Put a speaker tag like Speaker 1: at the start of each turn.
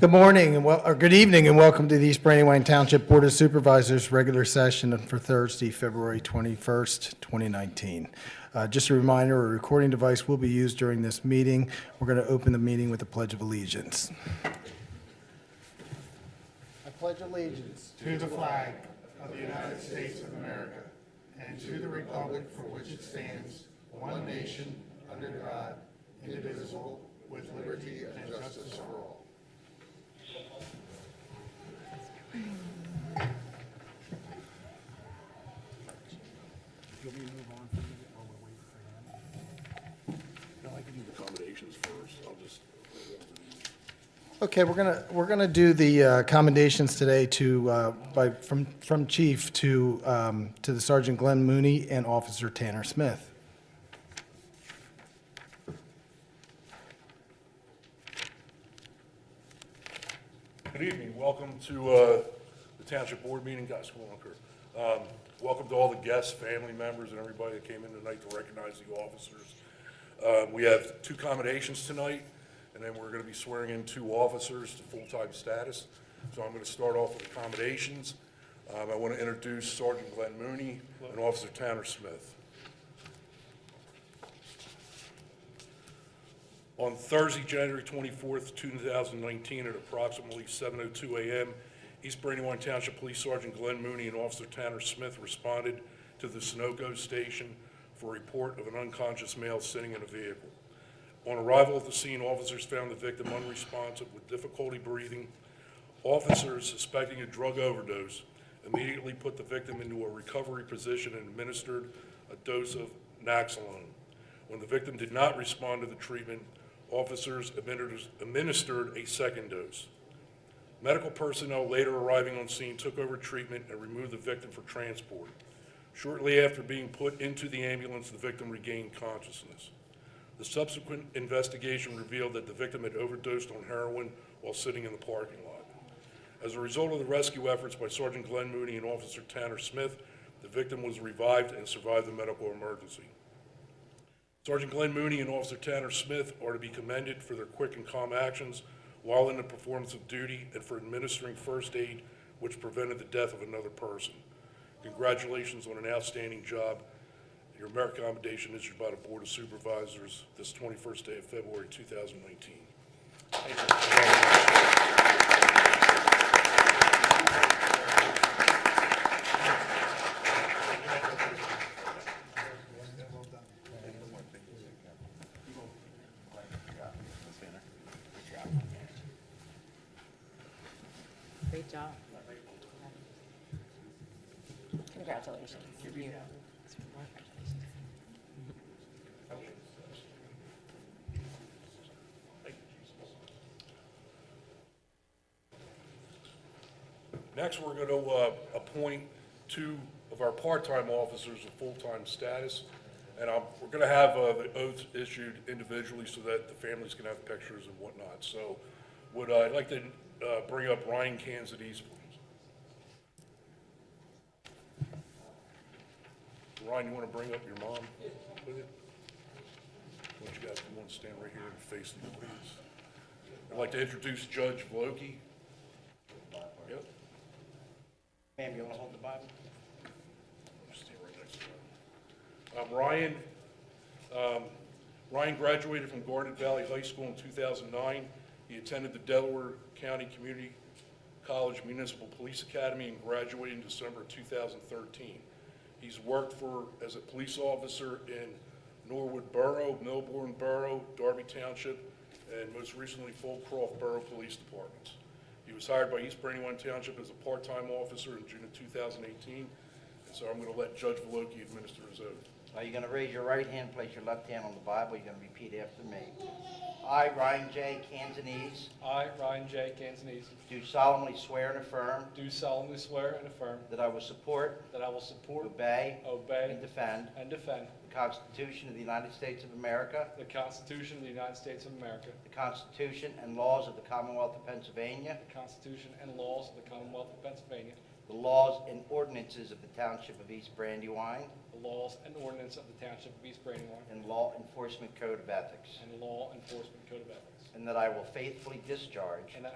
Speaker 1: Good morning and well, or good evening and welcome to the East Brandywine Township Board of Supervisors regular session for Thursday, February 21st, 2019. Uh, Just a reminder, a recording device will be used during this meeting. We're going to open the meeting with a pledge of allegiance. I pledge allegiance
Speaker 2: to the flag of the United States of America and to the republic for which it stands, one nation, under God, indivisible, with liberty and justice for all.
Speaker 1: Okay, we're gonna, we're gonna do the uh, commendations today to, uh, by, from, from chief to, um, to the Sergeant Glenn Mooney and Officer Tanner Smith.
Speaker 3: Good evening, welcome to uh, the Township Board meeting, guys, come on, Kurt. Um, Welcome to all the guests, family members, and everybody that came in tonight to recognize the officers. Um, We have two commendations tonight, and then we're going to be swearing in two officers to full-time status. So I'm going to start off with accommodations. Um, I want to introduce Sergeant Glenn Mooney and Officer Tanner Smith. On Thursday, January 24th, 2019, at approximately 7:02 a.m., East Brandywine Township Police Sergeant Glenn Mooney and Officer Tanner Smith responded to the Sunoco Station for a report of an unconscious male sitting in a vehicle. On arrival at the scene, officers found the victim unresponsive with difficulty breathing. Officers suspecting a drug overdose immediately put the victim into a recovery position and administered a dose of Naxalone. When the victim did not respond to the treatment, officers administered- administered a second dose. Medical personnel later arriving on scene took over treatment and removed the victim for transport. Shortly after being put into the ambulance, the victim regained consciousness. The subsequent investigation revealed that the victim had overdosed on heroin while sitting in the parking lot. As a result of the rescue efforts by Sergeant Glenn Mooney and Officer Tanner Smith, the victim was revived and survived the medical emergency. Sergeant Glenn Mooney and Officer Tanner Smith are to be commended for their quick and calm actions while in the performance of duty and for administering first aid which prevented the death of another person. Congratulations on an outstanding job. Your merit commendation issued by the Board of Supervisors this 21st day of February 2019.
Speaker 4: Great job. Congratulations.
Speaker 3: Next, we're going to appoint two of our part-time officers of full-time status, and I'm- we're going to have uh, the oaths issued individually so that the families can have pictures and whatnot. So would, uh, I'd like to uh, bring up Ryan Kansas, please. Ryan, you want to bring up your mom with it? Why don't you guys, you want to stand right here and face the audience? I'd like to introduce Judge Vloki. Yep.
Speaker 5: Ma'am, you want to hold the Bible?
Speaker 3: Stand right next to him. Um, Ryan, um, Ryan graduated from Garnet Valley High School in 2009. He attended the Delaware County Community College Municipal Police Academy and graduated in December of 2013. He's worked for, as a police officer in Norwood Borough, Melbourne Borough, Darby Township, and most recently Fulcroft Borough Police Departments. He was hired by East Brandywine Township as a part-time officer in June of 2018. So I'm going to let Judge Voloki administer his oath.
Speaker 5: Now, you're going to raise your right hand, place your left hand on the Bible, you're going to repeat after me. I, Ryan J. Cantonese,
Speaker 6: I, Ryan J. Cantonese,
Speaker 5: do solemnly swear and affirm
Speaker 6: do solemnly swear and affirm
Speaker 5: that I will support,
Speaker 6: that I will support,
Speaker 5: obey,
Speaker 6: obey,
Speaker 5: and defend
Speaker 6: and defend
Speaker 5: the Constitution of the United States of America,
Speaker 6: the Constitution of the United States of America,
Speaker 5: the Constitution and laws of the Commonwealth of Pennsylvania,
Speaker 6: the Constitution and laws of the Commonwealth of Pennsylvania,
Speaker 5: the laws and ordinances of the Township of East Brandywine,
Speaker 6: the laws and ordinance of the Township of East Brandywine,
Speaker 5: and Law Enforcement Code of Ethics,
Speaker 6: and the Law Enforcement Code of Ethics,
Speaker 5: and that I will faithfully discharge
Speaker 6: and that